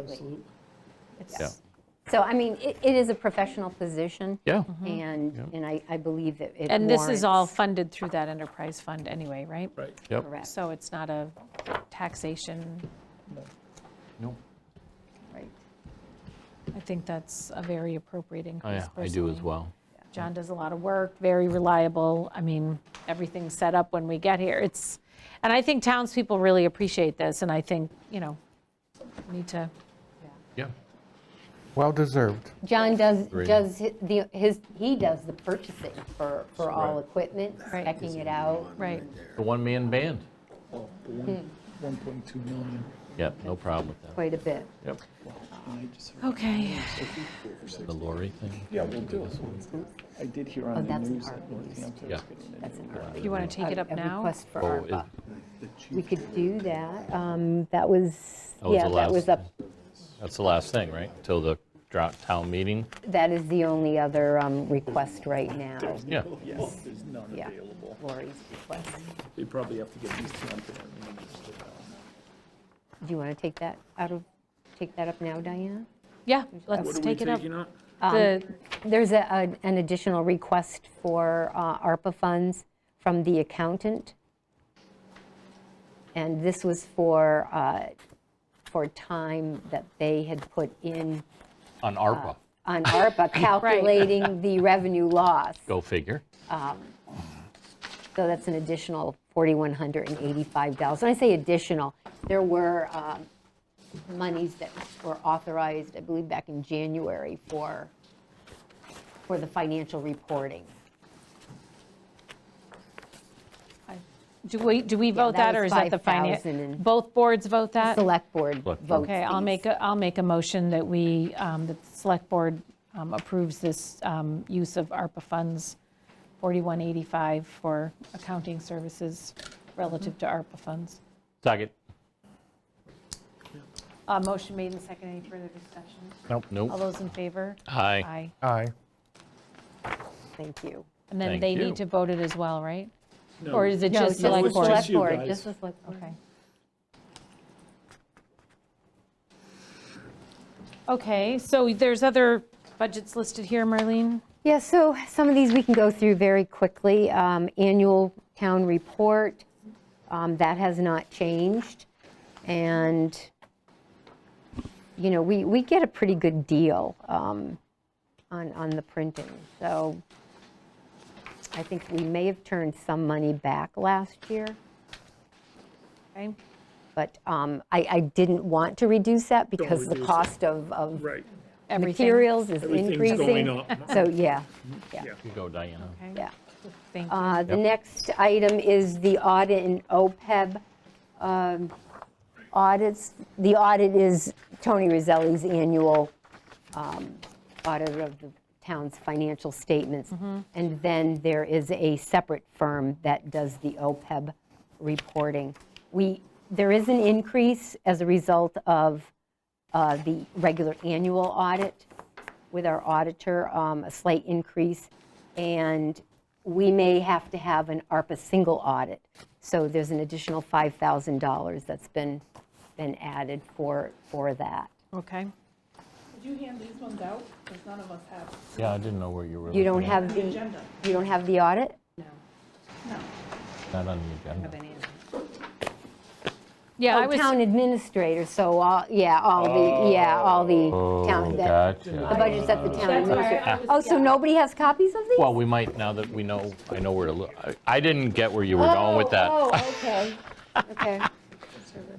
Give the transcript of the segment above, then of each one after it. Absolutely. Yeah. So, I mean, it, it is a professional position. Yeah. And, and I, I believe that it And this is all warrants- funded through that enterprise fund anyway, right? Right. Yep. Correct, So it's not a taxation, No. right. I think that's a very appropriate I- increase Oh, I do as personally. well. John does a lot of work, very reliable. I mean, everything's set up when we get here. It's, and I think townspeople really appreciate this, and I think, you know, we need to, Yeah. Well deserved. John does, Agree. does hi- the, his, he does the purchasing for, for all equipment, Right. checking it out. right, The one-man band. Well, but Oh, one- 1.2 million. Yep, no problem with that. Quite a bit. Yep. I just heard okay. The lorry thing. Yeah, we'll do it. I did hear Oh, on the that's an news that art Northampton Yeah. was getting That's into an it. ARPA. You want to take it up A- A now? request for Oh, is- ARPA. We could do that. Um, That was, That was yeah, the that was last- up, That's the last thing, right? Till the drought town meeting? that is the only other um, request right now, Yeah. Yes, there's none Yeah. available. Lori's request. We probably have to get these two on to them. and then just go down. Do you want to take that out of, take that up now, Diana? Yeah, let's take it up. The- Um, There's a- an an additional request for uh, ARPA funds from the accountant. And this was for, uh, for time that they had put in On Ah. ARPA. on ARPA calculating the revenue loss. Go figure. So that's an additional $4,185. When I say additional, there were um, monies that were authorized, I believe, back in January for, for the financial reporting. Do we, do we vote that that, or was is that the finance? 5,000 and- Both boards vote that? Select board Select votes. board. Uh, Okay, I'll these. make, a will make a motion that we, um, that the select board um, approves this um, use of ARPA funds, 4185 for accounting services relative to ARPA funds. Second. Uh, Motion made and seconded, any further discussion? Nope. All Nope. those in favor? Aye. Aye. Aye. Thank you. And then Thank they you. need to vote it as well, right? No. Or is it just just select the board? select- you guys. Just the select board. Okay. Okay, so there's other budgets listed here, Marlene? Yeah, so some of these we can go through very quickly. Um, Annual town report, um, that has not changed. And, you know, we, we get a pretty good deal um, on, on the printing. So I think we may have turned some money back last year, Okay. but um, I, I didn't want to reduce that because the reduce it. cost of, of Right. Everything. materials is Everything's increasing. going up. So, yeah, You go, Diana. Okay, yeah. Thank you. Uh, The next item is the audit and OPEB E um, audits. The audit is Tony Roselli's annual um, audit of the town's financial statements. And then there is a separate firm that does the OPEB reporting. We, there is an increase as a result of uh, the regular annual audit with our auditor, um, a slight increase, and we may have to have an ARPA single audit. So there's an additional $5,000 that's been, been added for, for that. Okay. Did you hand these ones out? Because none of us have Yeah, I didn't know where you were. You don't looking. have the, the you agenda. don't have the audit? No. Not on the agenda. Yeah, I Oh, was, town administrator, so all, yeah, all the, yeah, all the Oh, town, the the gotcha. budget's at the That's town why I administrator. was- Oh, so nobody has copies of these? Well, we might, now that we know, I know where to look. I- I didn't get where you were going with Oh, that. oh, okay, okay,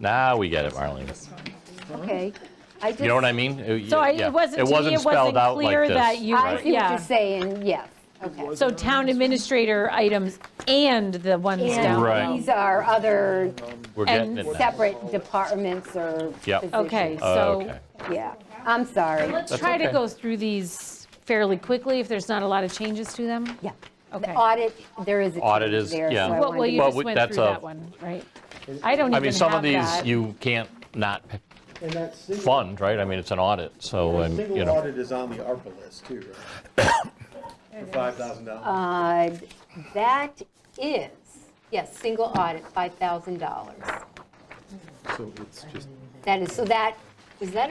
Now we get it, Marlene. okay. I You know what just- I mean? It- so I- yeah. it wasn't, It to me, wasn't it spelled wasn't out clear like that this. you, I see what yeah. you're saying, yes, okay. So town administrator items and the ones down. Right. And these are other We're getting and it now. separate departments or Yep. positions. Okay, so Okay. Yeah, I'm sorry. let's try to okay. go through these fairly quickly if there's not a lot of changes to them. Yeah. The Okay. audit, there is a Audit change is- there, so yeah. I Well, Well, wanted well, to- you Well, just we- went that's through a- that one, right? I don't I even mean, some of have these that. you can't not And that single, fund, right? I mean, it's an audit, so, um, you single know. audit is on the ARPA list too, right? For five thousand dollars. Uh, That is, yes, single audit, $5,000. So it's just That is, so that, is that a